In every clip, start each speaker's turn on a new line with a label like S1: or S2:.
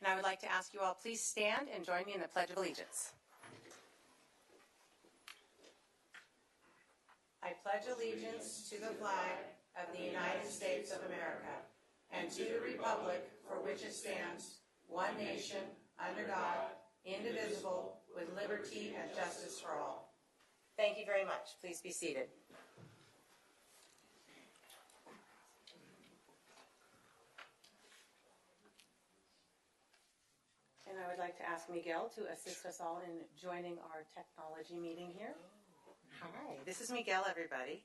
S1: And I would like to ask you all, please stand and join me in the Pledge of Allegiance. I pledge allegiance to the flag of the United States of America and to the republic for which it stands, one nation, under God, indivisible, with liberty and justice for all. Thank you very much. Please be seated. And I would like to ask Miguel to assist us all in joining our technology meeting here. Hi, this is Miguel, everybody.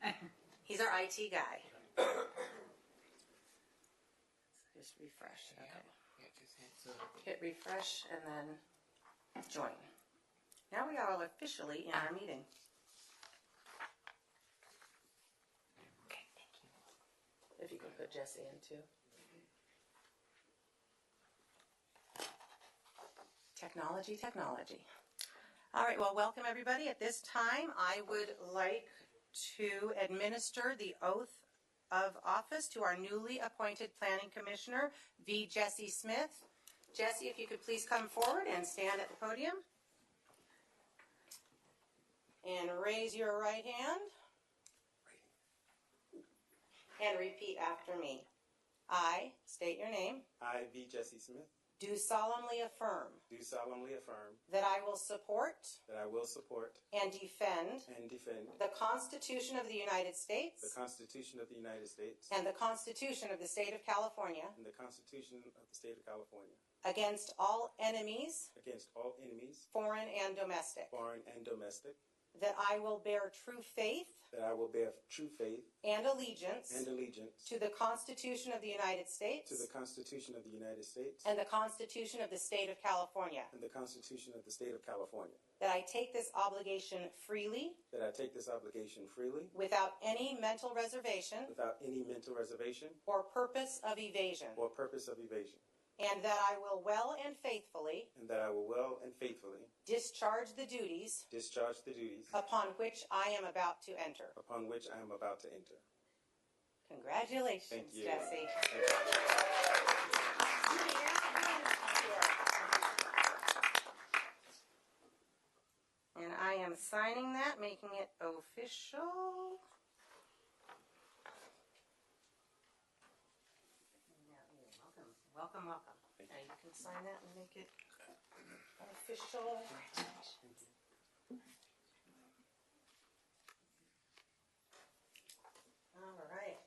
S1: He's our IT guy. Just refresh, okay. Hit refresh and then join. Now we are all officially in our meeting. Okay, thank you. If you could put Jesse in too. Technology, technology. All right, well, welcome everybody. At this time, I would like to administer the oath of office to our newly appointed planning commissioner, V. Jesse Smith. Jesse, if you could please come forward and stand at the podium. And raise your right hand. And repeat after me. I state your name.
S2: I, V. Jesse Smith,
S1: Do solemnly affirm
S2: do solemnly affirm
S1: that I will support
S2: that I will support
S1: and defend
S2: and defend
S1: the Constitution of the United
S2: the
S1: States
S2: Constitution of the United States
S1: and the Constitution of the State of California
S2: and the Constitution of the State of California
S1: against all enemies,
S2: against all enemies,
S1: foreign and domestic,
S2: foreign and domestic,
S1: that I will bear true faith
S2: that I will bear true faith
S1: and allegiance
S2: and allegiance
S1: to the Constitution of the United States
S2: to the Constitution of the United States
S1: and the Constitution of the State of California,
S2: and the Constitution of the State of California,
S1: that I take this obligation freely
S2: that I take this obligation freely
S1: without any mental reservation
S2: without any mental reservation
S1: or purpose of evasion,
S2: or purpose of evasion,
S1: and that I will well and faithfully
S2: and that I will well and faithfully
S1: discharge the duties
S2: discharge the duties
S1: upon which I am about to enter.
S2: upon which I am about to enter.
S1: Congratulations,
S2: Thank you.
S1: Jesse.
S2: Thank you.
S1: And I am signing that, making it official. Now, you're Welcome, welcome, welcome. Now you can sign that and make it official. All right.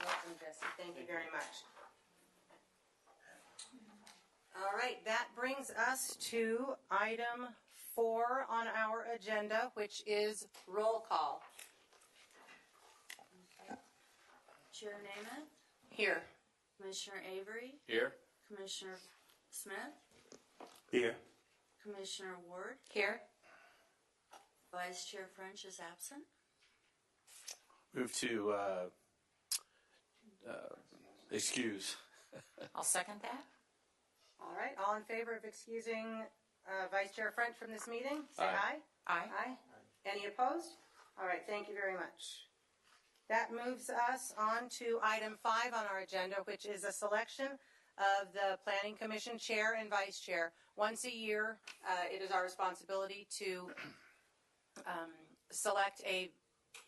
S1: Welcome, Jesse. Thank you very much. All right, that brings us to item four on our agenda, which is roll call.
S3: Chair Namath,
S1: Here.
S3: Commissioner Avery,
S4: Here.
S3: Commissioner Smith,
S2: Here.
S3: Commissioner Ward,
S1: Here.
S3: Vice Chair French is absent.
S4: Move to uh, uh, excuse.
S5: I'll second that.
S1: All right, all in favor of excusing uh, Vice Chair French from this meeting? Say aye.
S4: Aye.
S5: Aye.
S1: Aye. Any opposed? All right, thank you very much. That moves us on to item five on our agenda, which is a selection of the Planning Commission Chair and Vice Chair. Once a year, uh, it is our responsibility to um, select a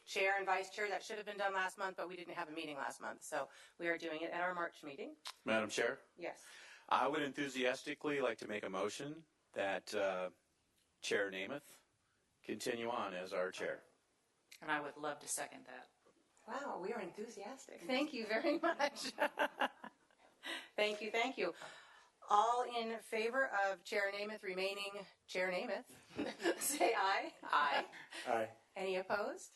S1: chair and vice chair. That should have been done last month, but we didn't have a meeting last month, so we are doing it at our March meeting.
S4: Madam Chair,
S1: Yes.
S4: I would enthusiastically like to make a motion that uh, Chair Namath continue on as our chair.
S5: And I would love to second that.
S1: Wow, we are enthusiastic. Thank you very much. thank you, thank you. All in favor of Chair Namath remaining Chair Namath, say aye.
S5: Aye.
S2: Aye.
S1: Any opposed?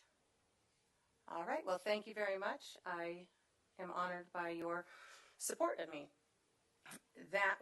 S1: All right, well, thank you very much. I am honored by your support of me. That